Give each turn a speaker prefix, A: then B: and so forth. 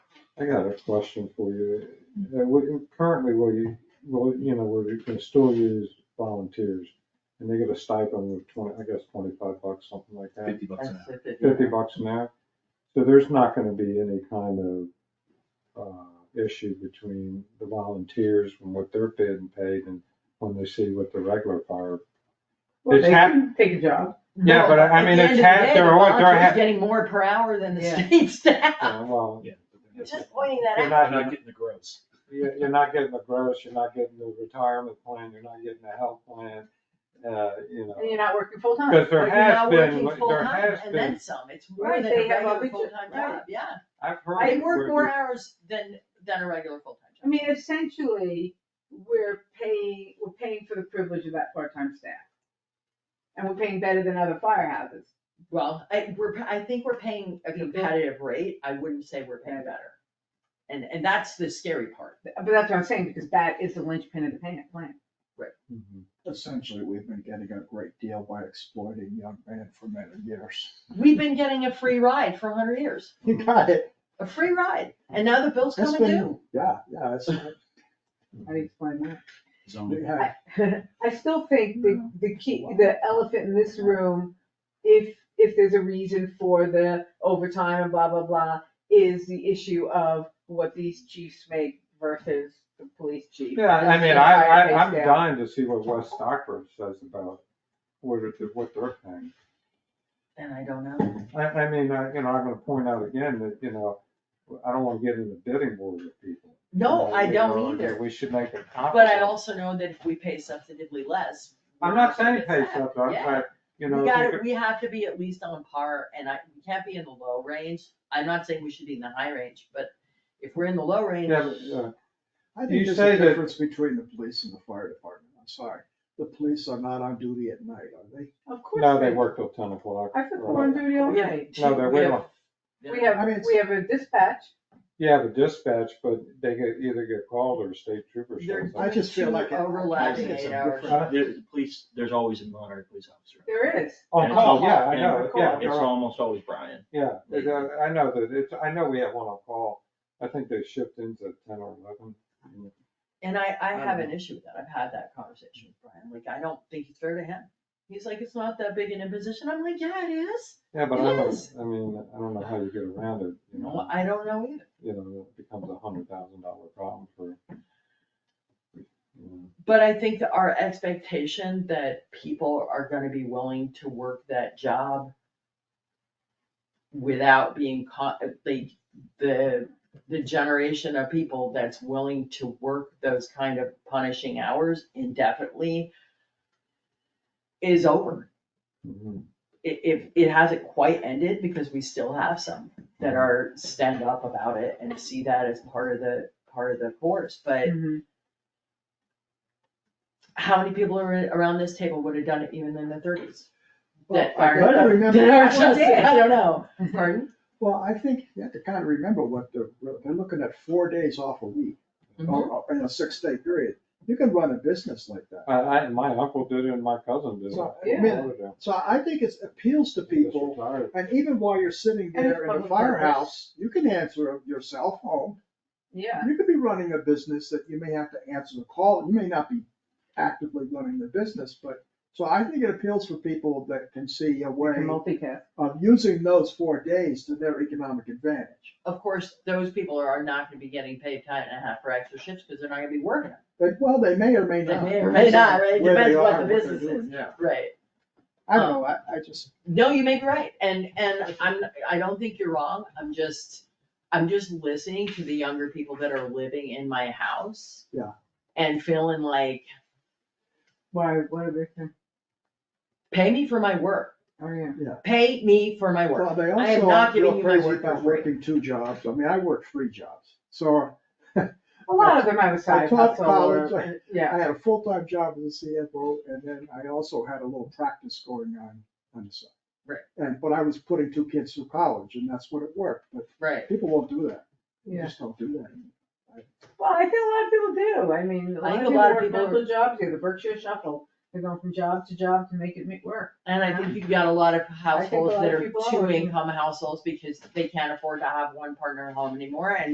A: I got a question for you. Uh, we- Currently, we, well, you know, we're gonna still use volunteers and they get a stipend of twenty, I guess twenty-five bucks, something like that,
B: fifty bucks
C: That's
B: an hour.
C: the fifty.
A: fifty bucks an hour. So there's not gonna be any kind of uh, issue between the volunteers and what they're being paid and when they see what the regular fire.
D: Well,
A: It's
D: they
A: hap-
D: can take a job.
A: Yeah, but I- I
C: No, at
A: mean,
C: the
A: it's
C: end of the
A: half-
C: day,
A: they're
C: the
A: all- they're
C: volunteers
A: half-
C: Getting more per hour than the
D: Yeah.
C: state staff.
A: Uh, Well,
B: Yeah.
C: Just pointing that
A: you're not,
B: They're
C: out.
B: not getting the gross.
A: you're you're not getting the gross, you're not getting the retirement plan, you're not getting the health plan, uh, you know.
D: And you're not working full time.
A: Because
C: But
A: there
C: you're
A: has
C: not
A: been,
C: working
A: there
C: full-time
A: has
C: and
A: been,
C: then some. It's more
D: Right,
C: than a
D: they have a
C: regular
D: big-
C: full-time
D: right.
C: job, yeah.
A: I've heard.
C: They work
A: where
C: more
A: you-
C: hours than, than a regular full-time
D: I
C: job.
D: mean, essentially, we're paying, we're paying for the privilege of that part-time staff. And we're paying better than other firehouses.
C: Well, I, we're, I think we're paying a competitive rate. I wouldn't say we're paying better. And, and that's the scary part.
D: But that's what I'm saying, because that is the linchpin of the pan- plan.
A: Mhm.
E: Essentially, we've been getting a great deal by exploiting young men for many years.
C: We've been getting a free ride for hundred years,
E: You got it.
C: a free ride, and now the bill's
E: That's
C: coming
E: been-
C: due.
E: Yeah, yeah, it's,
D: How do you explain that?
B: Zoning.
E: we had,
D: I still think the, the key, the elephant in this room, if, if there's a reason for the overtime and blah, blah, blah, is the issue of what these chiefs make versus the police chief.
A: Yeah, I mean,
D: And
A: I,
D: higher pay
A: I, I'm
D: scale.
A: dying to see what West Stockbridge says about what it, what they're paying.
C: And I don't know.
A: I, I mean, I, you know, I'm gonna point out again that, you know, I don't wanna get in the bidding war with people.
C: No,
A: You
C: I
A: know,
C: don't
A: that
C: either,
A: We should make it
C: but I
A: comparable.
C: also know that if we pay substantively less.
A: I'm not saying pay
C: it's
A: stuff,
C: that,
A: I'm,
C: yeah.
A: I, you know.
C: We
A: if
C: gotta,
A: could-
C: we have to be at least on par, and I, we can't be in the low range, I'm not saying we should be in the high range, but if we're in the low range,
A: Yeah, but, uh,
E: I
A: You
E: think there's
A: say
E: a
A: that-
E: difference between the police and the fire department, I'm sorry. The police are not on duty at night, are they?
D: Of course.
A: no, they work till ten o'clock.
D: I put them
A: or-
D: on duty all
C: we have.
D: night.
C: two-
A: No, they're
C: we
A: way
C: have-
A: off.
C: yeah.
D: We
E: I
D: have,
E: mean, it's-
D: we have a dispatch.
A: Yeah, the dispatch, but they get, either get called or state troopers.
C: They're-
A: shows up.
E: I just feel
C: Two
E: like. it-
C: overlapping
E: it's a
C: eight hours.
E: different-
B: There's police, there's always a Monterey police officer.
D: There is.
A: On
B: And it's
A: Oh, call,
B: almost-
A: yeah, I
B: and
A: know, yeah.
B: It's
A: they're on-
B: almost always Brian.
A: Yeah, they do. I know that it's, I know we have one on call. I think they shipped into ten or eleven.
C: And I, I have
A: Um,
C: an issue with that, I've had that conversation with Brian, like, I don't think it's fair to him. He's like, it's not that big an imposition, I'm like, yeah, it is,
A: Yeah, but I don't,
C: Yes.
A: I mean, I don't know how you get around it, you
C: no,
A: know,
C: I don't know either.
A: you know, it becomes a hundred thousand dollar problem for. you know.
C: But I think that our expectation that people are gonna be willing to work that job without being caught, the, the, the generation of people that's willing to work those kind of punishing hours indefinitely is over.
A: Mhm.
C: It, if, it hasn't quite ended because we still have some that are stand up about it and see that as part of the, part of the course, but
D: Mm-hmm.
C: how many people are around this table would have done it even in the thirties? That
E: Well, I
C: fire-
E: gotta remember-
D: just-
C: I don't know, pardon?
E: Well, I think you have to kind of remember what they're, they're looking at four days off a week,
C: Mm-hmm.
E: or- or in a six-day period. You can run a business like that.
A: I, I, my uncle did it and my cousin did it.
E: So, I
D: Yeah.
E: mean, so I think it appeals to people And even while you're sitting
D: And it's
E: there in a
D: public purpose.
E: firehouse, you can answer your cell phone.
D: Yeah.
E: You could be running a business that you may have to answer the call. You may not be actively running the business, but, so I think it appeals for people that can see a way
D: Multicast.
E: of using those four days to their economic advantage.
C: Of course, those people are not gonna be getting paid time and a half for extra shifts, cause they're not gonna be working,
E: But, well, they may or may
C: They
E: not.
C: may or may not, right? It
E: Where they
C: depends what
E: are,
C: the
E: they're
C: business
E: doing.
C: is.
E: Yeah,
C: right?
E: I don't know, I, I just,
C: No, you may be right, and, and I'm, I don't think you're wrong, I'm just, I'm just listening to the younger people that are living in my house.
E: Yeah.
C: And feeling like,
D: Why, what are they, saying?
C: pay me for my work,
D: oh, yeah.
C: pay me for my work.
E: well, they
C: I am
E: also
C: not
E: are
C: giving
E: real
C: you my
E: crazy
C: work for
E: about
C: free.
E: working two jobs. I mean, I work three jobs. So
D: A lot of them have a
E: I
D: side
E: taught
D: hustle
E: college,
D: or,
E: I-
D: yeah.
E: I had a full-time job as a CFO, and then I also had a little practice going on on the side.
C: Right.
E: And, but I was putting two kids through college, and that's what it worked, but
C: Right,
E: people won't do that. They
D: Yeah.
E: Just don't do that.
D: Well, I think a lot of people do. I mean, a
C: I
D: lot
C: think
D: of people work multiple
C: are-
D: jobs here. The Berkshire Shuffle, they're going from job to job to make it make work.
C: and I think you've got a lot of households
D: lot
C: that
D: of
C: are
D: people are.
C: two income households because they can't afford to have one partner at home anymore and